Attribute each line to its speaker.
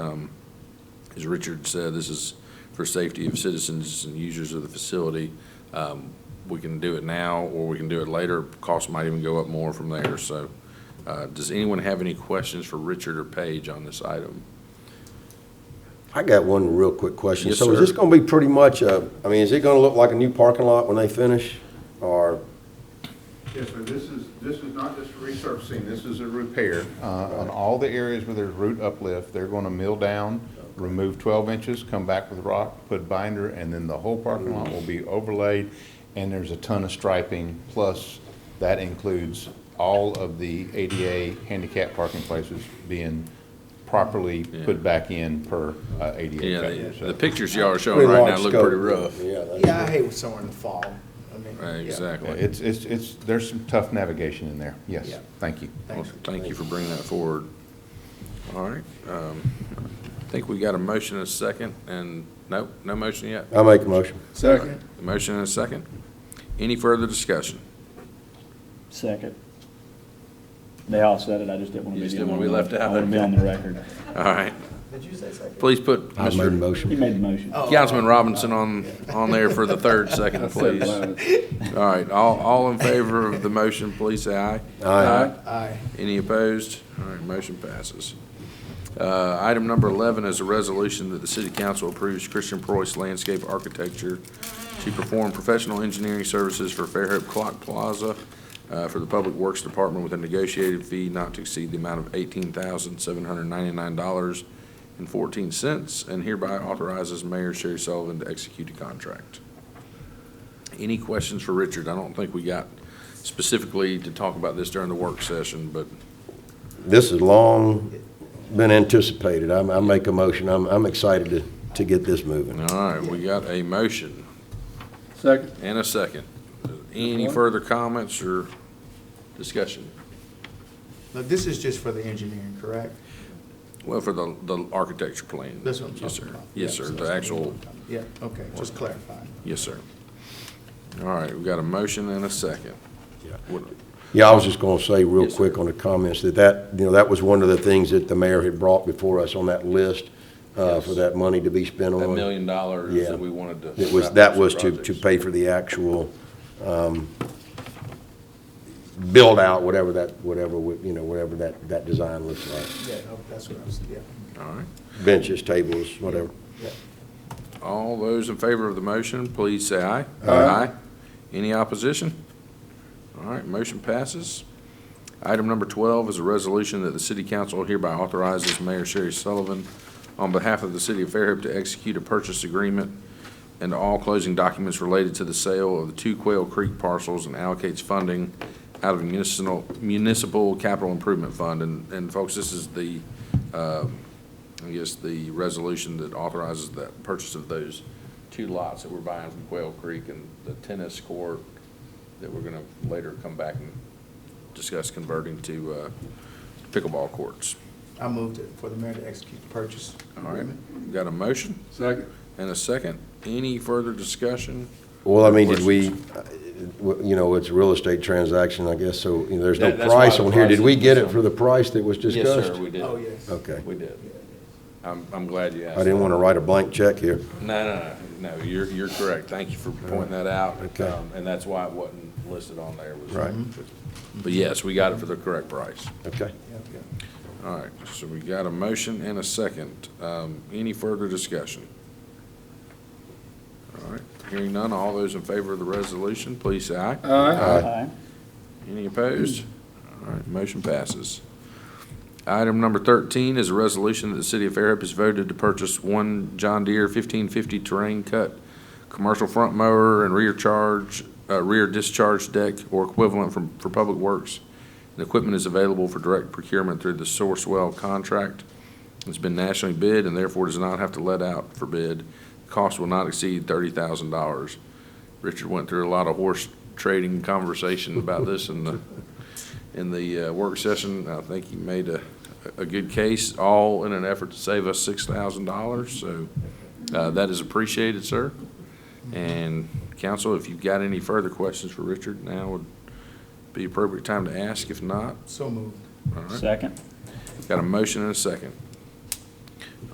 Speaker 1: Um, As Richard said, this is for safety of citizens and users of the facility. Um, We can do it now, or we can do it later. Costs might even go up more from there, so. uh, Does anyone have any questions for Richard or Paige on this item?
Speaker 2: I got one real quick question.
Speaker 1: Yes,
Speaker 2: So is
Speaker 1: sir.
Speaker 2: this gonna be pretty much a, I mean, is it gonna look like a new parking lot when they finish? Or,
Speaker 3: Yes, sir, this is, this is not just resurfacing, this is a repair. Uh, On all the areas where there's root uplift, they're going to mill down, remove 12 inches, come back with rock, put binder, and then the whole parking lot will be overlaid, and there's a ton of striping, plus that includes all of the ADA handicap parking places being properly put back in per uh, ADA.
Speaker 1: Yeah,
Speaker 3: code,
Speaker 1: the-
Speaker 3: so.
Speaker 1: the pictures y'all are showing
Speaker 2: Pretty
Speaker 1: right now
Speaker 2: large
Speaker 1: look pretty
Speaker 2: scope.
Speaker 1: rough.
Speaker 2: Yeah, that's-
Speaker 4: Yeah, I hate when somewhere in the fall. I mean,
Speaker 1: Right,
Speaker 4: yeah.
Speaker 3: Yeah,
Speaker 1: Exactly.
Speaker 3: It's, it's, it's, there's some tough navigation in there, yes,
Speaker 4: Yeah.
Speaker 3: thank you.
Speaker 1: Well,
Speaker 4: Thanks.
Speaker 1: Thank you for bringing that forward. All right. um, I think we got a motion and a second, and, nope, no motion yet.
Speaker 2: I make a motion.
Speaker 4: Second.
Speaker 1: A Motion and a second. Any further discussion?
Speaker 5: Second. They all said it, I just didn't want to
Speaker 1: You
Speaker 5: be.
Speaker 1: just
Speaker 5: the
Speaker 1: didn't
Speaker 5: only
Speaker 1: wanna be
Speaker 5: one.
Speaker 1: left out.
Speaker 5: I want to be on the record.
Speaker 1: All right.
Speaker 4: Did you say second?
Speaker 1: Please put
Speaker 2: I made a
Speaker 1: Mr.
Speaker 5: He
Speaker 2: motion.
Speaker 5: made the motion.
Speaker 4: Oh.
Speaker 1: Councilman Robinson on, on there for the third second, please. All right, all, all in favor of the motion, please say aye.
Speaker 2: Aye.
Speaker 4: Aye.
Speaker 1: Any opposed? All right, motion passes. Uh, Item number 11 is a resolution that the city council approves Christian Preuss Landscape Architecture to perform professional engineering services for Fairhope Clock Plaza uh, for the Public Works Department with a negotiated fee not to exceed the amount of $18,799.14 and hereby authorizes Mayor Sherry Sullivan to execute a contract. Any questions for Richard? I don't think we got specifically to talk about this during the work session, but
Speaker 2: This has long been anticipated. I, I make a motion. I'm, I'm excited to, to get this moving.
Speaker 1: All right, we got a motion
Speaker 5: Second.
Speaker 1: and a second. Any further comments or discussion?
Speaker 4: Now, this is just for the engineering, correct?
Speaker 1: Well, for the, the architecture plan.
Speaker 4: That's what I'm
Speaker 1: Yes,
Speaker 4: talking
Speaker 1: sir.
Speaker 4: about.
Speaker 1: Yes,
Speaker 4: Yeah,
Speaker 1: sir,
Speaker 4: so
Speaker 1: the
Speaker 4: it's-
Speaker 1: actual,
Speaker 4: Yeah, okay, just clarifying.
Speaker 1: yes, sir. All right, we got a motion and a second. What-
Speaker 2: Yeah, I was just gonna say real
Speaker 1: Yes, sir.
Speaker 2: quick on the comments that that, you know, that was one of the things that the mayor had brought before us on that list, uh, for
Speaker 1: Yes.
Speaker 2: that money to be spent on.
Speaker 1: That million dollars
Speaker 2: Yeah.
Speaker 1: that we wanted to.
Speaker 2: It was, that was to, to pay for the actual, um, build out, whatever that, whatever, we- you know, whatever that, that design looks like.
Speaker 4: Yeah, oh, that's what I was, yeah,
Speaker 1: All right.
Speaker 2: Benches, tables, whatever.
Speaker 4: yeah.
Speaker 1: All those in favor of the motion, please say aye.
Speaker 2: Aye.
Speaker 1: Any opposition? All right, motion passes. Item number 12 is a resolution that the city council hereby authorizes Mayor Sherry Sullivan on behalf of the city of Fairhope to execute a purchase agreement and all closing documents related to the sale of the two Quail Creek parcels and allocates funding out of municipal, municipal capital improvement fund. And, and folks, this is the, uh, I guess, the resolution that authorizes the purchase of those two lots that we're buying from Quail Creek and the tennis court that we're gonna later come back and discuss converting to uh, pickleball courts.
Speaker 4: I moved it for the mayor to execute the purchase.
Speaker 1: All right,
Speaker 4: agreement.
Speaker 1: got a motion? Second. And a second. Any further discussion?
Speaker 2: Well, I mean, did we, uh, w- you know, it's a real estate transaction, I guess, so, you know, there's no
Speaker 1: That- that's why
Speaker 2: price
Speaker 1: the
Speaker 2: on here. Did we
Speaker 1: price
Speaker 2: get
Speaker 1: is-
Speaker 2: it for the price that was discussed?
Speaker 1: we
Speaker 4: Oh, yes.
Speaker 2: Okay.
Speaker 1: We did. I'm, I'm glad you asked.
Speaker 2: I didn't want to write a blank check here.
Speaker 1: that. No, no, no, no, you're, you're correct. Thank you for pointing that out.
Speaker 2: Okay.
Speaker 1: Um, And that's why it wasn't listed on there. was-
Speaker 2: Right.
Speaker 1: But yes, we got it for the correct price.
Speaker 2: Okay.
Speaker 4: Yeah, yeah.
Speaker 1: All right, so we got a motion and a second. Um, Any further discussion? All right, hearing none, all those in favor of the resolution, please say aye.
Speaker 5: Aye.
Speaker 1: Any opposed? All right, motion passes. Item number 13 is a resolution that the city of Fairhope has voted to purchase one John Deere 1550 terrain cut commercial front mower and rear charge, uh, rear discharge deck or equivalent from, for Public Works. The equipment is available for direct procurement through the Sourcewell contract. It's been nationally bid and therefore does not have to let out for bid. Cost will not exceed $30,000. Richard went through a lot of horse trading conversation about this in the, in the uh, work session. I think he made a, a good case, all in an effort to save us six thousand dollars, so, uh, that is appreciated, sir. And council, if you've got any further questions for Richard, now would be appropriate time to ask. If not,
Speaker 4: So moved.
Speaker 1: all right.
Speaker 5: Second.
Speaker 1: Got a motion and a second.